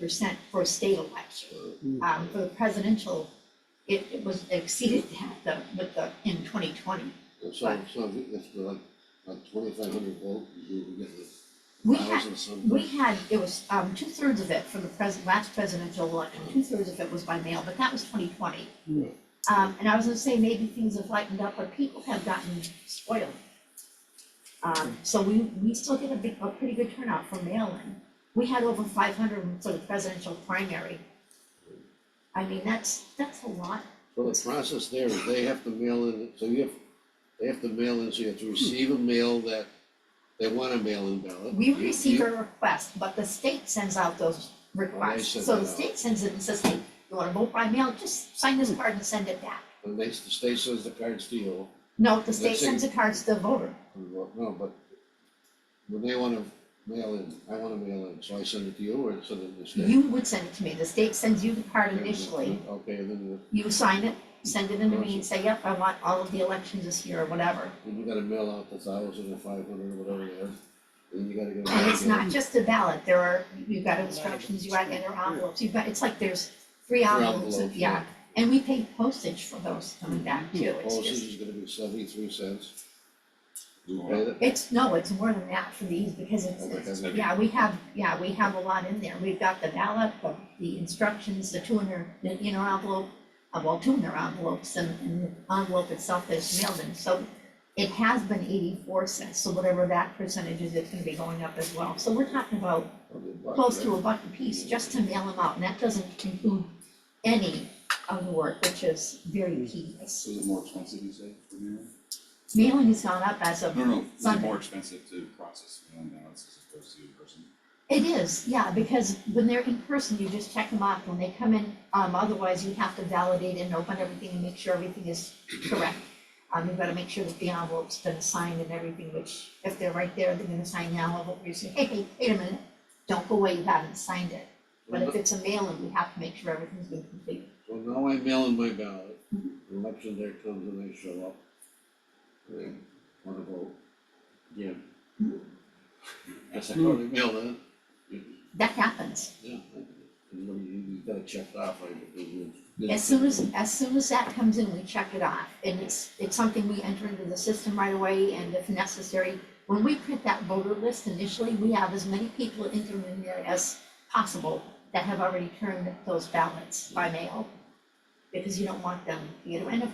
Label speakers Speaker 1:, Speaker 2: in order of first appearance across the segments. Speaker 1: percent for a state election. Um, for the presidential, it, it was exceeded that, the, with the, in twenty twenty.
Speaker 2: And So, so if we- if we're like, like twenty-five hundred volt, you would get the
Speaker 1: We had,
Speaker 2: thousand or something.
Speaker 1: we had, it was, um, two thirds of it for the pres- last presidential election, two thirds of it was by mail, but that was twenty twenty.
Speaker 2: Yeah.
Speaker 1: Um, and I was gonna say, maybe things have lightened up, but people have gotten spoiled. Um, so we, we still get a big, a pretty good turnout for mail-in. We had over five hundred for the presidential primary. I mean, that's, that's a lot.
Speaker 2: So the process there is they have to mail in, so you have, they have to mail in, so you have to receive a mail that they want a mail-in ballot.
Speaker 1: We
Speaker 2: You-
Speaker 1: receive
Speaker 2: you-
Speaker 1: a request, but the state sends out those requests.
Speaker 2: send
Speaker 1: So
Speaker 2: it
Speaker 1: the
Speaker 2: out.
Speaker 1: state sends it and says, hey, you wanna vote by mail, just sign this card and send it back.
Speaker 2: And they, the state sends the cards to you,
Speaker 1: No, the state
Speaker 2: Let's see.
Speaker 1: sends the cards to the voter.
Speaker 2: and what- no, but when they wanna mail in, I wanna mail in, so I send it to you or send it to the state?
Speaker 1: You would send it to me. The state sends you the card
Speaker 2: And then-
Speaker 1: initially.
Speaker 2: Okay, and then,
Speaker 1: You sign it, send it into me and say, yep, I want all of the elections this year or whatever.
Speaker 2: the- then you gotta mail out the thousand or five hundred or whatever it is, and you gotta get.
Speaker 1: And it's not just a ballot. There are, you've got instructions, you gotta enter envelopes. You've got, it's like there's three envelopes,
Speaker 2: envelopes,
Speaker 1: yeah.
Speaker 2: yeah.
Speaker 1: And we pay postage for those coming back too. It's
Speaker 2: Postage
Speaker 1: just,
Speaker 2: is gonna be seventy-three cents. You pay that?
Speaker 1: it's, no, it's more than that for these because it's,
Speaker 2: Okay,
Speaker 1: it's-
Speaker 2: that's-
Speaker 1: yeah, we have, yeah, we have a lot in there. We've got the ballot, the, the instructions, the two inner, the inner envelope, uh, well, two inner envelopes and, and the envelope itself that's mailed in, so it has been eighty-four cents, so whatever that percentage is, it's gonna be going up as well. So we're talking about
Speaker 2: Okay, buck,
Speaker 1: close
Speaker 2: right?
Speaker 1: to a buck a piece just to mail them out, and that doesn't include any of the work, which is very tedious.
Speaker 3: Is it more expensive, you say, for mail?
Speaker 1: Mailing has gone up as of
Speaker 3: No, no, is it
Speaker 1: Sunday.
Speaker 3: more expensive to process mail-in ballots as opposed to in person?
Speaker 1: It is, yeah, because when they're in person, you just check them off. When they come in, um, otherwise you have to validate and open everything and make sure everything is correct. Um, you've gotta make sure that the envelope's been signed and everything, which if they're right there, they're gonna sign the envelope. You say, hey, hey, wait a minute, don't go away, you haven't signed it. But if it's a mail-in, we have to make sure everything's been completed.
Speaker 2: Well, now I mail in my ballot,
Speaker 1: Mhm.
Speaker 2: election day comes and they show up. They wanna vote. Yeah. Guess I already mailed in.
Speaker 1: That happens.
Speaker 2: Yeah. And when you, you gotta check it off, right? because you-
Speaker 1: As soon as, as soon as that comes in, we check it off, and it's, it's something we enter into the system right away, and if necessary, when we print that voter list initially, we have as many people entered in there as possible that have already turned those ballots by mail, because you don't want them, you know, and if,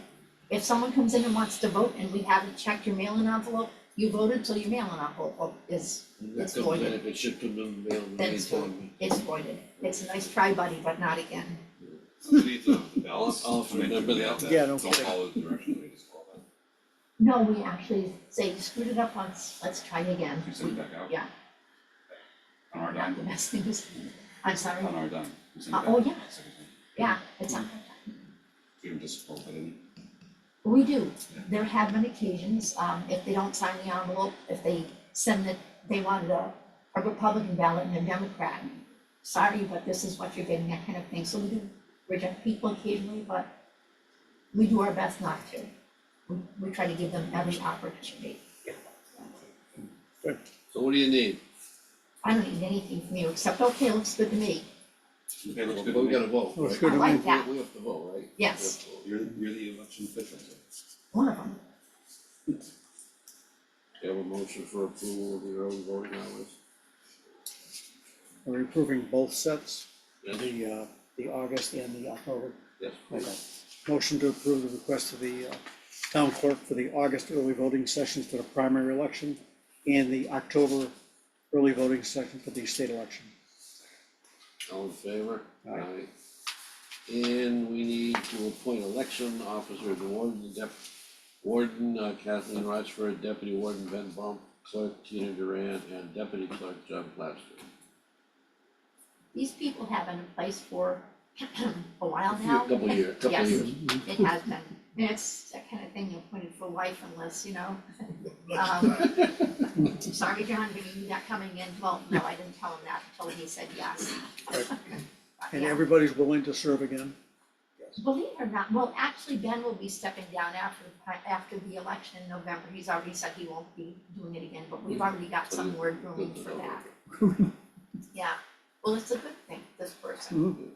Speaker 1: if someone comes in and wants to vote and we haven't checked your mail-in envelope, you voted till your mail-in envelope is,
Speaker 2: And that
Speaker 1: it's
Speaker 2: comes in,
Speaker 1: voided.
Speaker 2: if it should come in, mail in
Speaker 1: That's
Speaker 2: anytime.
Speaker 1: is voided. It's a nice try, buddy, but not again.
Speaker 3: ballots
Speaker 2: I'll
Speaker 3: come in through
Speaker 2: remember
Speaker 3: mail
Speaker 2: that.
Speaker 4: Yeah, no
Speaker 3: Don't
Speaker 4: kidding.
Speaker 3: follow the directions they just follow that.
Speaker 1: No, we actually say, you screwed it up once, let's try again.
Speaker 3: You send it back out?
Speaker 1: Yeah.
Speaker 3: On our
Speaker 1: Not the
Speaker 3: dime,
Speaker 1: best things. I'm sorry,
Speaker 3: on our dime. You send it
Speaker 1: Uh,
Speaker 3: back
Speaker 1: oh,
Speaker 3: out,
Speaker 1: yeah.
Speaker 3: so we can-
Speaker 1: yeah, it's not,
Speaker 3: We can just roll that in.
Speaker 1: we do, there have been occasions, um, if they don't sign the envelope, if they send it, they wanted a, a Republican ballot and a Democrat. Sorry, but this is what you're getting, that kind of thing, so we do reject people occasionally, but we do our best not to. We, we try to give them every opportunity.
Speaker 2: So what do you need?
Speaker 1: I don't need anything from you, except, okay, looks good to me,
Speaker 3: Okay, looks
Speaker 2: Well,
Speaker 3: good to
Speaker 2: We
Speaker 3: me.
Speaker 2: gotta vote,
Speaker 4: Looks
Speaker 2: right?
Speaker 4: good
Speaker 1: to I like me.
Speaker 2: We-
Speaker 1: that.
Speaker 2: We have to vote, right?
Speaker 1: Yes.
Speaker 2: We have to vote.
Speaker 3: You're, you're the election official, so.
Speaker 1: one of them.
Speaker 2: Do you have a motion for approval of your own voting hours?
Speaker 4: We're approving both sets,
Speaker 2: Yeah.
Speaker 4: the, uh, the August and the October.
Speaker 2: Yes.
Speaker 4: Okay. Motion to approve the request of the uh, town clerk for the August early voting sessions for the primary election and the October early voting session for the state election.
Speaker 2: All in favor?
Speaker 4: Aye.
Speaker 2: And we need to appoint election officer, the warden, the dep- warden uh, Kathleen Rochford, deputy warden Ben Bump, clerk Tina Duran, and deputy clerk John Plaster.
Speaker 1: These people have been in place for a while
Speaker 2: A few-
Speaker 1: now.
Speaker 2: couple year- couple
Speaker 1: Yes,
Speaker 2: years.
Speaker 1: It has been, and it's that kind of thing you're appointed for life unless, you know. um, Sorry, John, but you knew that coming in, well, no, I didn't tell him that until he said yes.
Speaker 4: Right.
Speaker 1: But
Speaker 4: And
Speaker 1: yeah.
Speaker 4: everybody's willing to serve again.
Speaker 1: Believe it or not, well, actually, Ben will be stepping down after, after the election in November, he's already said he won't be doing it again, but we've already got some word room for that. Yeah, well, it's a good thing, this
Speaker 4: Mhm.